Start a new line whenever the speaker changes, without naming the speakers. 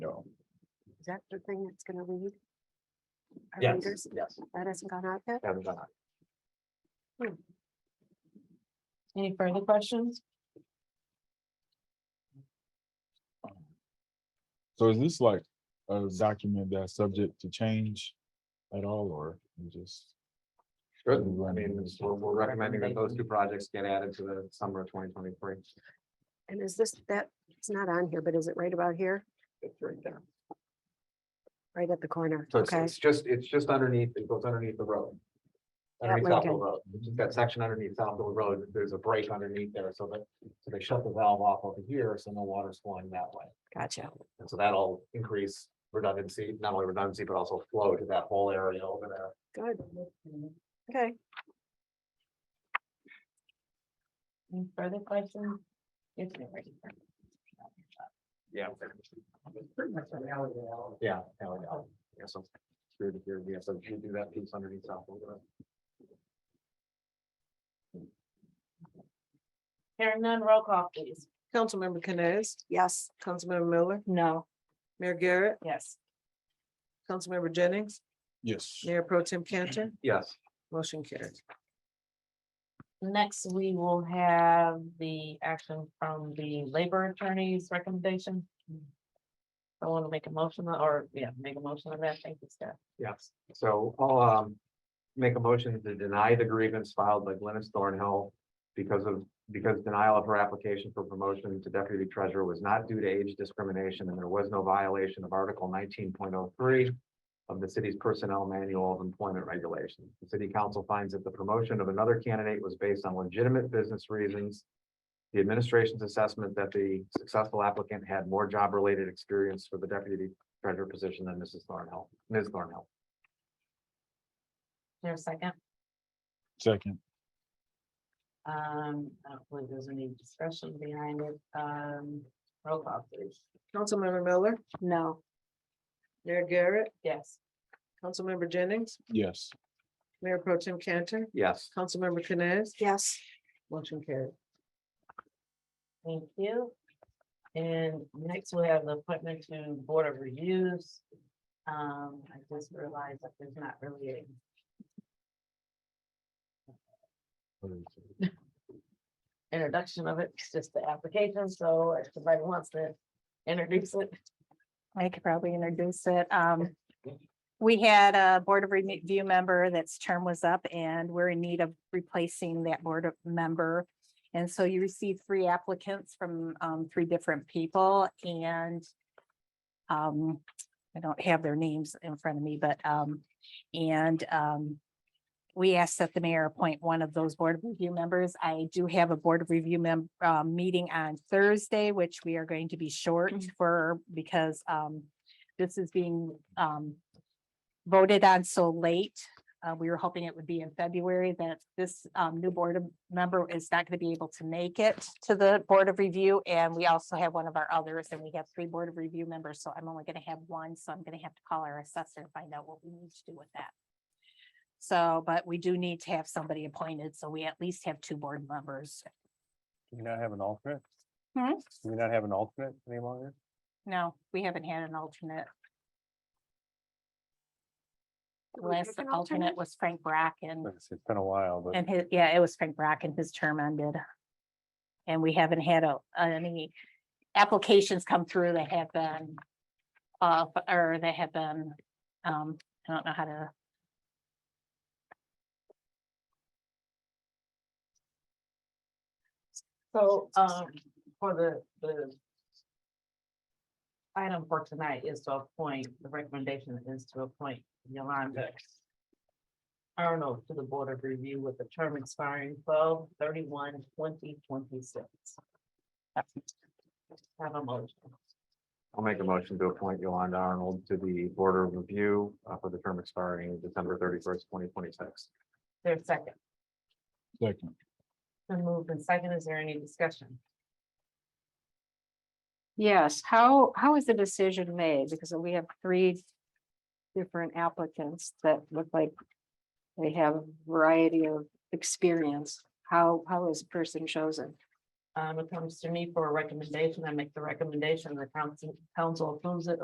Is that the thing that's gonna lead? Our
Yes,
leaders,
yes.
that hasn't gone out yet?
haven't done that.
Any further questions?
So is this like a document that's subject to change at all, or you just?
Good, I mean, it's- we're, we're recommending that those two projects get added to the summer of twenty twenty-three.
And is this, that, it's not on here, but is it right about here,
It's right there.
right at the corner?
So it's,
Okay,
it's just, it's just underneath, it goes underneath the road.
At
Underneath Southfield
Lincoln.
Road, Just that section underneath Southfield Road, there's a break underneath there, so that, so they shut the valve off over here, so no water's flowing that way.
gotcha.
And so that'll increase redundancy, not only redundancy, but also flow to that whole area over there.
Good. Okay,
Any further questions? It's already-
Yeah. Yeah. alley to alley. Yeah, so. Here to here, yeah, so you do that piece underneath Southfield Road.
Hearing none, roll call please.
Councilmember Canes,
yes,
Councilmember Miller,
No.
Mayor Garrett,
Yes.
Councilmember Jennings,
Yes.
Mayor Pro Tim Cantor,
Yes,
motion carried.
Next, we will have the action from the labor attorney's recommendation. I want to make a motion or, yeah, make a motion on that. Thank you, Steph.
yes. So I'll um make a motion to deny the grievance filed by Glennis Thornhill. Because of, because denial of her application for promotion to deputy treasurer was not due to age discrimination and there was no violation of article nineteen point oh three. Of the city's personnel manual of employment regulations. The city council finds that the promotion of another candidate was based on legitimate business reasons. The administration's assessment that the successful applicant had more job-related experience for the deputy treasurer position than Mrs. Thornhill, Ms. Thornhill.
Here a second.
Second,
Um, I don't believe there's any discussion behind it. Um, roll call please.
Councilmember Miller,
no,
Mayor Garrett,
Yes.
Councilmember Jennings,
yes.
Mayor Pro Tim Cantor,
Yes.
Councilmember Canes,
yes,
motion carried.
Thank you. And next we have the appointment to Board of Reviews. Um, I just realized that there's not really a introduction of it, it's just the application, so if somebody wants to introduce it.
I could probably introduce it. Um, we had a board of review member that's term was up and we're in need of replacing that board of member. And so you received three applicants from, um, three different people and um, I don't have their names in front of me, but, um, and, um, we asked that the mayor appoint one of those board of review members. I do have a board of review mem- uh, meeting on Thursday, which we are going to be short for, because, um, this is being, um, voted on so late. Uh, we were hoping it would be in February that this, um, new board of- member is not going to be able to make it to the board of review. And we also have one of our others, and we have three board of review members, so I'm only going to have one, so I'm going to have to call our assessor and find out what we need to do with that. So, but we do need to have somebody appointed, so we at least have two board members.
Do we not have an alternate?
Hmm?
Do we not have an alternate any longer?
No, we haven't had an alternate. The
we have
Last
an alternate?
alternate was Frank Bracken
Like I said, It's been a while, but
and his, yeah, it was Frank Bracken, his term ended. And we haven't had a, any applications come through that have been uh, or that have been, um, I don't know how to
So, um, for the, the item for tonight is to appoint, the recommendation is to appoint Yolanda Arnold to the Board of Review with a term expiring 12 31 twenty twenty-six. Have a motion.
I'll make a motion to appoint Yolanda Arnold to the Board of Review uh, for the term expiring December thirty-first, twenty twenty-six.
There's second.
Second,
Then moved and second. Is there any discussion?
Yes, how, how is the decision made? Because we have three different applicants that look like they have a variety of experience. How, how is a person chosen?
Um, it comes to me for a recommendation. I make the recommendation, the council, council approves it